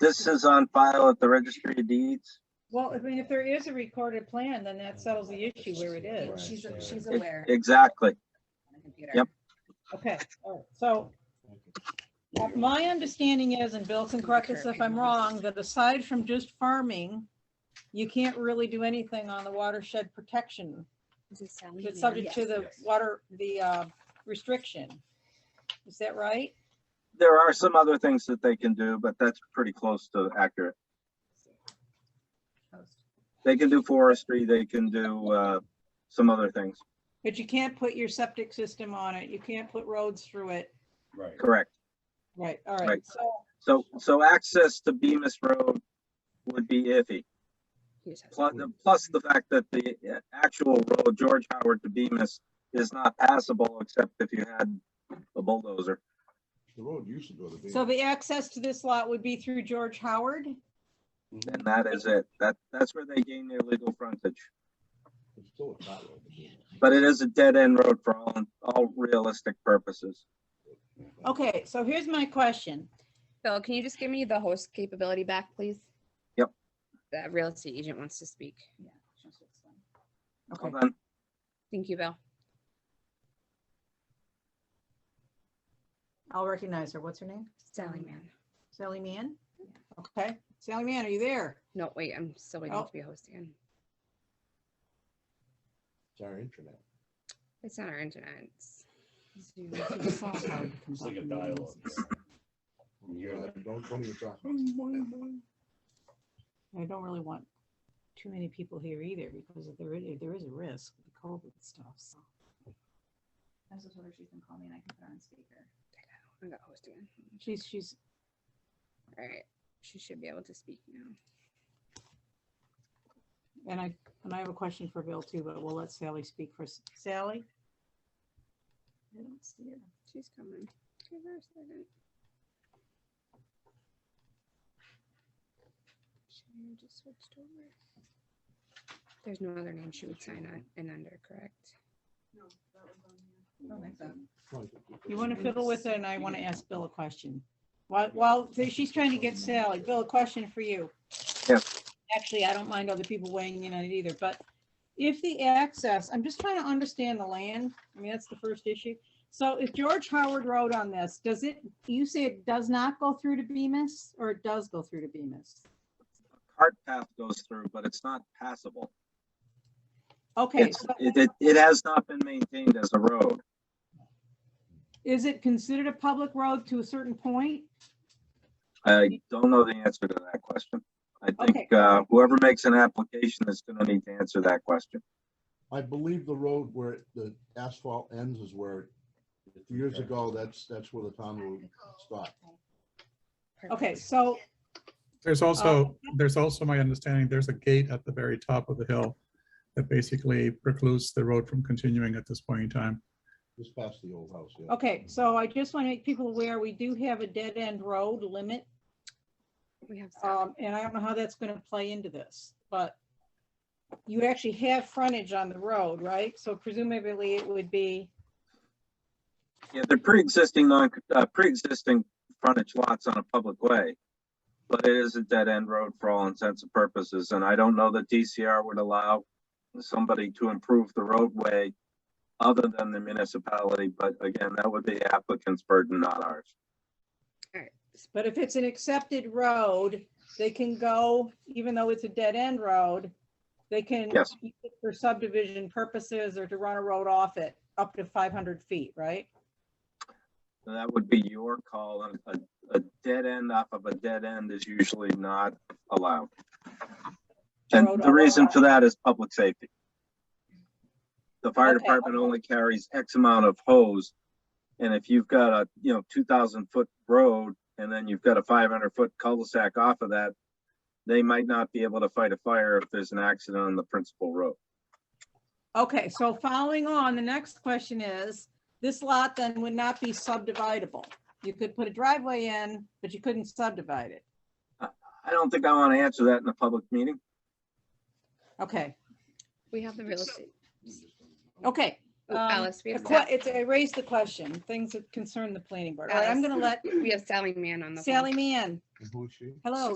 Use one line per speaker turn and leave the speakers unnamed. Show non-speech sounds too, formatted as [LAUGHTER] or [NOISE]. This is on file at the registry of deeds.
Well, I mean, if there is a recorded plan, then that settles the issue where it is.
She's, she's
It-
aware.
Exactly.
on the computer.
yep.
Okay, all right, so uh, my understanding is, and Bill can correct us if I'm wrong, that aside from just farming, you can't really do anything on the watershed protection. It's subject to the
Yes.
water, the uh, restriction. Is that right?
There are some other things that they can do, but that's pretty close to accurate. They can do forestry, they can do, uh, some other things.
But you can't put your septic system on it. You can't put roads through it.
Right.
Correct.
Right, all right,
Right.
so
So, so access to Bemis Road would be iffy. Plus, plus the fact that the uh, actual road, George Howard to Bemis, is not passable except if you had a bulldozer.
The road used to go to Beaver.
So the access to this lot would be through George Howard?
And that is it. That, that's where they gain their legal frontage.
It's still a hot road. to Beaver.
But it is a dead end road for all, all realistic purposes.
Okay, so here's my question.
Bill, can you just give me the host capability back, please?
Yep.
The real estate agent wants to speak.
Hold on.
Thank you, Bill.
I'll recognize her. What's her name?
Sally man.
Sally Mann? Okay, Sally Mann, are you there?
No, wait, I'm still waiting
Oh.
to be a host again.
It's our internet.
It's not our internet. it's Zoom.
It's like a dialogue.
Uh, Don't, don't even talk.
I don't really want too many people here either because if there, is- there is a risk with the COVID stuff, so.
I was just wondering if she can call me and I can put her on speaker.
I got host again.
She's, she's,
All right, she should be able to speak now.
and I, and I have a question for Bill too, but we'll let Sally speak first. Sally?
I don't see her.
She's coming. Give her a second. She just switched over. There's no other name she would sign on and under, correct?
I don't think so.
You want to fiddle with it and I want to ask Bill a question. While, while she's trying to get Sally, Bill, a question for you.
Yes.
Actually, I don't mind other people weighing in on it either, but if the access, I'm just trying to understand the land. I mean, that's the first issue. So if George Howard Road on this, does it, you say it does not go through to Bemis or it does go through to Bemis?
Cart path goes through, but it's not passable.
Okay,
It's,
so
it, it, it has not been maintained as a road.
is it considered a public road to a certain point?
I don't know the answer to that question. I think, uh, whoever makes an application is gonna need to answer that question.
I believe the road where it- the asphalt ends is where, it- years ago, that's, that's where the town road stopped.
Okay, so
There's also, there's also my understanding, there's a gate at the very top of the hill that basically precludes the road from continuing at this point in time.
Just past the old house, yeah.
Okay, so I just want to make people aware, we do have a dead end road limit,
We have. Sally.
um, and I don't know how that's going to play into this, but you actually have frontage on the road, right? So presumably it would be,
Yeah, they're pre-existing, non, uh, pre-existing frontage lots on a public way. But it is a dead end road for all intents and purposes, and I don't know that DCR would allow somebody to improve the roadway other than the municipality, but again, that would be the applicant's burden, not ours.
but if it's an accepted road, they can go, even though it's a dead end road, they can
Yes.
use it for subdivision purposes or to run a road off it up to five hundred feet, right?
That would be your call, and a, a dead end off of a dead end is usually not allowed. And the reason for that is public safety. The fire
Okay.
department only carries X amount of hose. And if you've got a, you know, two thousand foot road and then you've got a five hundred foot cul-de-sac off of that, they might not be able to fight a fire if there's an accident on the principal road.
Okay, so following on, the next question is, this lot then would not be subdividable. You could put a driveway in, but you couldn't subdivide it.
I don't think I want to answer that in a public meeting.
Okay,
We have the real estate.
okay.
Oh,
Um,
Alice, we
a
have.
que-
Sa-
It's, I raised the question, things that concern the planning board. All right, I'm
Alice.
gonna let
We have Sally Mann [LAUGHS] on the. phone.
Sally Mann,
And who is she?
hello.